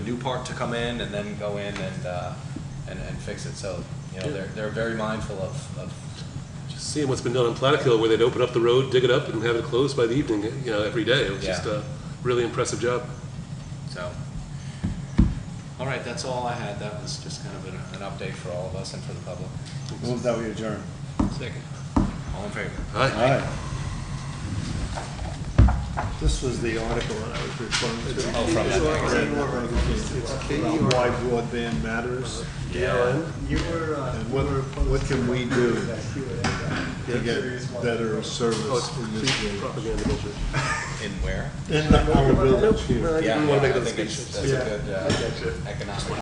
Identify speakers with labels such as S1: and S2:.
S1: new part to come in and then go in and, uh, and, and fix it. So, you know, they're, they're very mindful of, of,
S2: Just seeing what's been done on Plattekill, where they'd open up the road, dig it up, and have it closed by the evening, you know, every day. It was just
S1: Yeah.
S2: a really impressive job.
S1: so. All right, that's all I had. That was just kind of an, an update for all of us and for the public.
S3: Move that we adjourn.
S2: Second.
S1: All in favor?
S2: All right.
S3: Aye. This was the article that I was referring to.
S1: Oh, from that magazine.
S3: About Why broadband matters
S1: Yeah.
S4: You were, uh,
S3: And
S4: you
S3: what-
S4: were opposed
S3: what can
S4: to
S3: we do
S4: that Q and A, uh,
S3: to
S4: serious
S3: get
S4: one.
S3: better
S2: Oh, it's
S3: service in this
S2: complete
S3: area.
S2: propaganda measure.
S1: In where?
S3: In our village
S2: Nope, no,
S3: here.
S2: I
S1: Yeah,
S2: didn't
S1: yeah,
S2: want to
S1: I
S2: make that
S1: think it's,
S2: distinction.
S1: that's a good, uh, economic.